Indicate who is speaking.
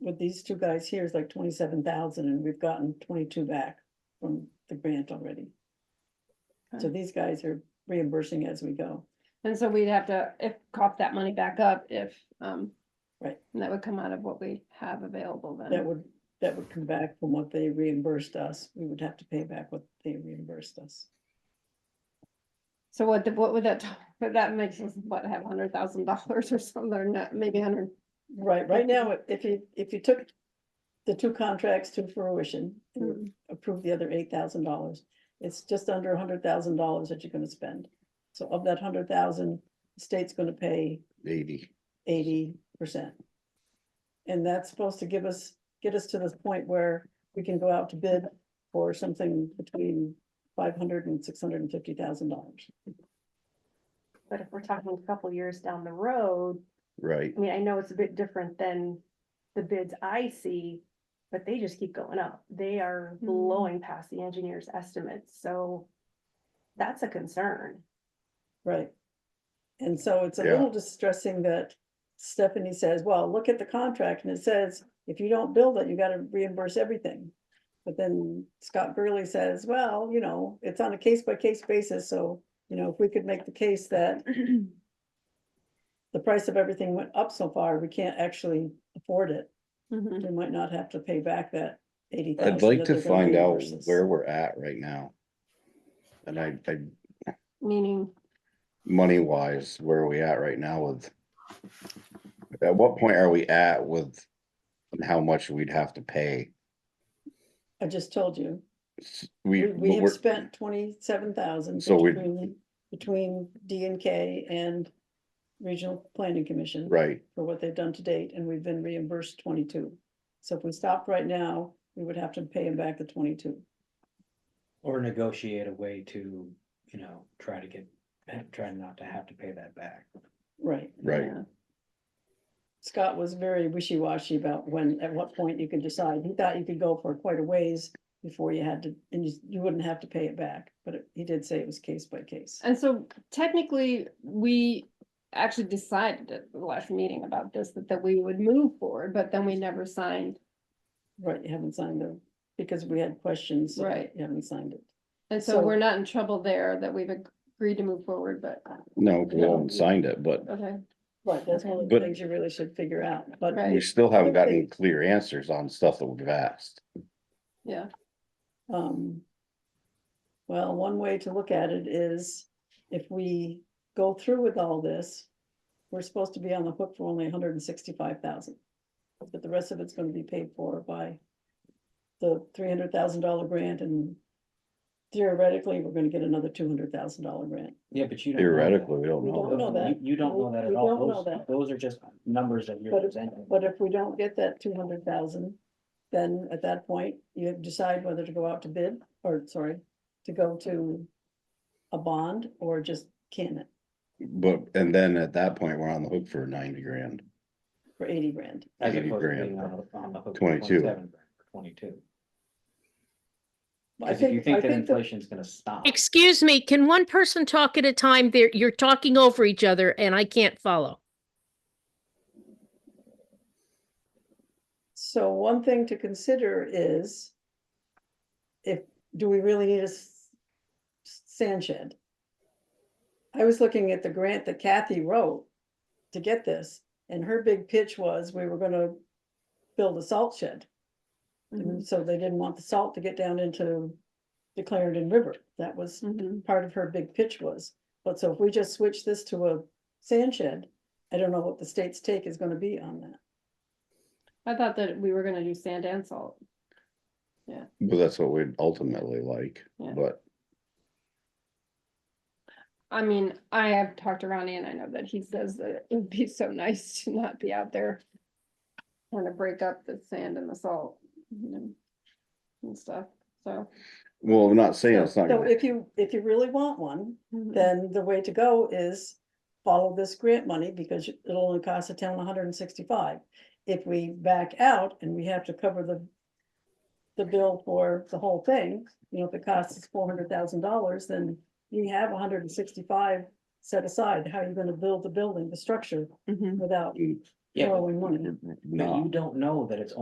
Speaker 1: with these two guys here is like twenty-seven thousand and we've gotten twenty-two back from the grant already. So
Speaker 2: Okay.
Speaker 1: these guys are reimbursing as we go.
Speaker 2: And so we'd have to, if, cough that money back up if, um.
Speaker 1: Right.
Speaker 2: And that would come out of what we have available then.
Speaker 1: That would, that would come back from what they reimbursed us. We would have to pay back what they reimbursed us.
Speaker 2: So what, the- what would that, t- but that makes us, what, have hundred thousand dollars or something, or not, maybe hundred,
Speaker 1: Right, right now, if- if you, if you took the two contracts to fruition and
Speaker 3: Hmm,
Speaker 2: Mm.
Speaker 1: approved the other eight thousand dollars, it's just under a hundred thousand dollars that you're gonna spend. So of that hundred thousand, the state's gonna pay
Speaker 4: eighty.
Speaker 1: eighty percent. And that's supposed to give us, get us to this point where we can go out to bid for something between five hundred and six hundred and fifty thousand dollars.
Speaker 3: But if we're talking a couple years down the road,
Speaker 4: Right,
Speaker 3: I mean, I know it's a bit different than the bids I see. But they just keep going up. They are
Speaker 2: Mm.
Speaker 3: blowing past the engineer's estimates, so that's a concern.
Speaker 1: Right. And so it's a
Speaker 4: Yeah.
Speaker 1: little distressing that Stephanie says, well, look at the contract and it says, if you don't build it, you gotta reimburse everything. But then Scott Burley says, well, you know, it's on a case by case basis, so, you know, if we could make the case that the price of everything went up so far, we can't actually afford it.
Speaker 2: Mhm.
Speaker 1: We might not have to pay back that eighty thousand.
Speaker 4: I'd like to find out where we're at right now. And I, I,
Speaker 2: meaning,
Speaker 4: money wise, where are we at right now with? At what point are we at with and how much we'd have to pay?
Speaker 1: I just told you,
Speaker 4: S-
Speaker 1: we,
Speaker 4: We,
Speaker 1: we
Speaker 4: but
Speaker 1: have
Speaker 4: we're-
Speaker 1: spent twenty-seven thousand.
Speaker 4: So we-
Speaker 1: Between D and K and Regional Planning Commission.
Speaker 4: right,
Speaker 1: For what they've done to date, and we've been reimbursed twenty-two. So if we stopped right now, we would have to pay them back the twenty-two.
Speaker 5: Or negotiate a way to, you know, try to get, try not to have to pay that back.
Speaker 1: Right.
Speaker 4: right,
Speaker 2: yeah.
Speaker 1: Scott was very wishy-washy about when, at what point you could decide. He thought you could go for quite a ways before you had to, and you, you wouldn't have to pay it back, but it- he did say it was case by case.
Speaker 2: And so technically, we actually decided at the last meeting about this, that, that we would move forward, but then we never signed.
Speaker 1: Right, you haven't signed them, because we had questions. so
Speaker 2: Right.
Speaker 1: You haven't signed it.
Speaker 2: And so
Speaker 1: So-
Speaker 2: we're not in trouble there that we've agreed to move forward, but,
Speaker 4: no, we haven't signed it, but
Speaker 2: okay,
Speaker 1: Right, that's one of the
Speaker 4: But-
Speaker 1: things you really should figure out, but
Speaker 4: we
Speaker 2: right,
Speaker 4: still haven't gotten clear answers on stuff that we've asked.
Speaker 2: yeah.
Speaker 1: Um. Well, one way to look at it is if we go through with all this, we're supposed to be on the hook for only hundred and sixty-five thousand. But the rest of it's gonna be paid for by the three hundred thousand dollar grant and theoretically, we're gonna get another two hundred thousand dollar grant.
Speaker 5: Yeah, but you. don't know that.
Speaker 4: Theoretically, we don't
Speaker 1: We
Speaker 4: know.
Speaker 1: don't know that.
Speaker 5: You- You don't know that
Speaker 1: We
Speaker 5: at
Speaker 1: don't know
Speaker 5: all. Those,
Speaker 1: that.
Speaker 5: those are just numbers that you're
Speaker 1: But-
Speaker 5: presenting.
Speaker 1: But if we don't get that two hundred thousand, then at that point, you decide whether to go out to bid, or sorry, to go to a bond or just can it
Speaker 4: But, and then at that point, we're on the hook for ninety grand.
Speaker 1: for eighty grand.
Speaker 5: As
Speaker 4: 80
Speaker 5: opposed to
Speaker 4: grand.
Speaker 5: being on the- on the hook for
Speaker 4: 22.
Speaker 5: 27 grand, Twenty-two.
Speaker 1: I
Speaker 5: Cause if you
Speaker 1: think, I
Speaker 5: think that
Speaker 1: think, the-
Speaker 5: inflation's gonna stop.
Speaker 6: Excuse me, can one person talk at a time? There, you're talking over each other and I can't follow.
Speaker 1: so one thing to consider is if, do we really need a s- sand shed? I was looking at the grant that Kathy wrote to get this, and her big pitch was we were gonna build a salt shed.
Speaker 2: Mhm,
Speaker 1: And so they didn't want the salt to get down into the Clarendon River. That was
Speaker 2: mhm.
Speaker 1: part of her big pitch was. But so if we just switch this to a sand shed, I don't know what the state's take is gonna be on that.
Speaker 2: I thought that we were gonna do sand and salt.
Speaker 4: But that's what we'd ultimately like,
Speaker 2: Yeah.
Speaker 4: but
Speaker 2: I mean, I have talked to Ronnie and I know that he says that it would be so nice to not be out there. Trying to break up the sand and the salt, you know, and stuff, so.
Speaker 4: Well, I'm not saying it's not
Speaker 1: So
Speaker 4: gonna,
Speaker 1: if you, if you really want one,
Speaker 2: mhm.
Speaker 1: then the way to go is follow this grant money because it'll only cost the town hundred and sixty-five. If we back out and we have to cover the the bill for the whole thing, you know, if it costs us four hundred thousand dollars, then you have hundred and sixty-five set aside. How are you gonna build the building, the structure
Speaker 2: Mhm.
Speaker 1: without
Speaker 4: Mm,
Speaker 5: Yeah, but-
Speaker 1: borrowing money?
Speaker 4: n- n-
Speaker 5: but
Speaker 4: not.
Speaker 5: you don't know that it's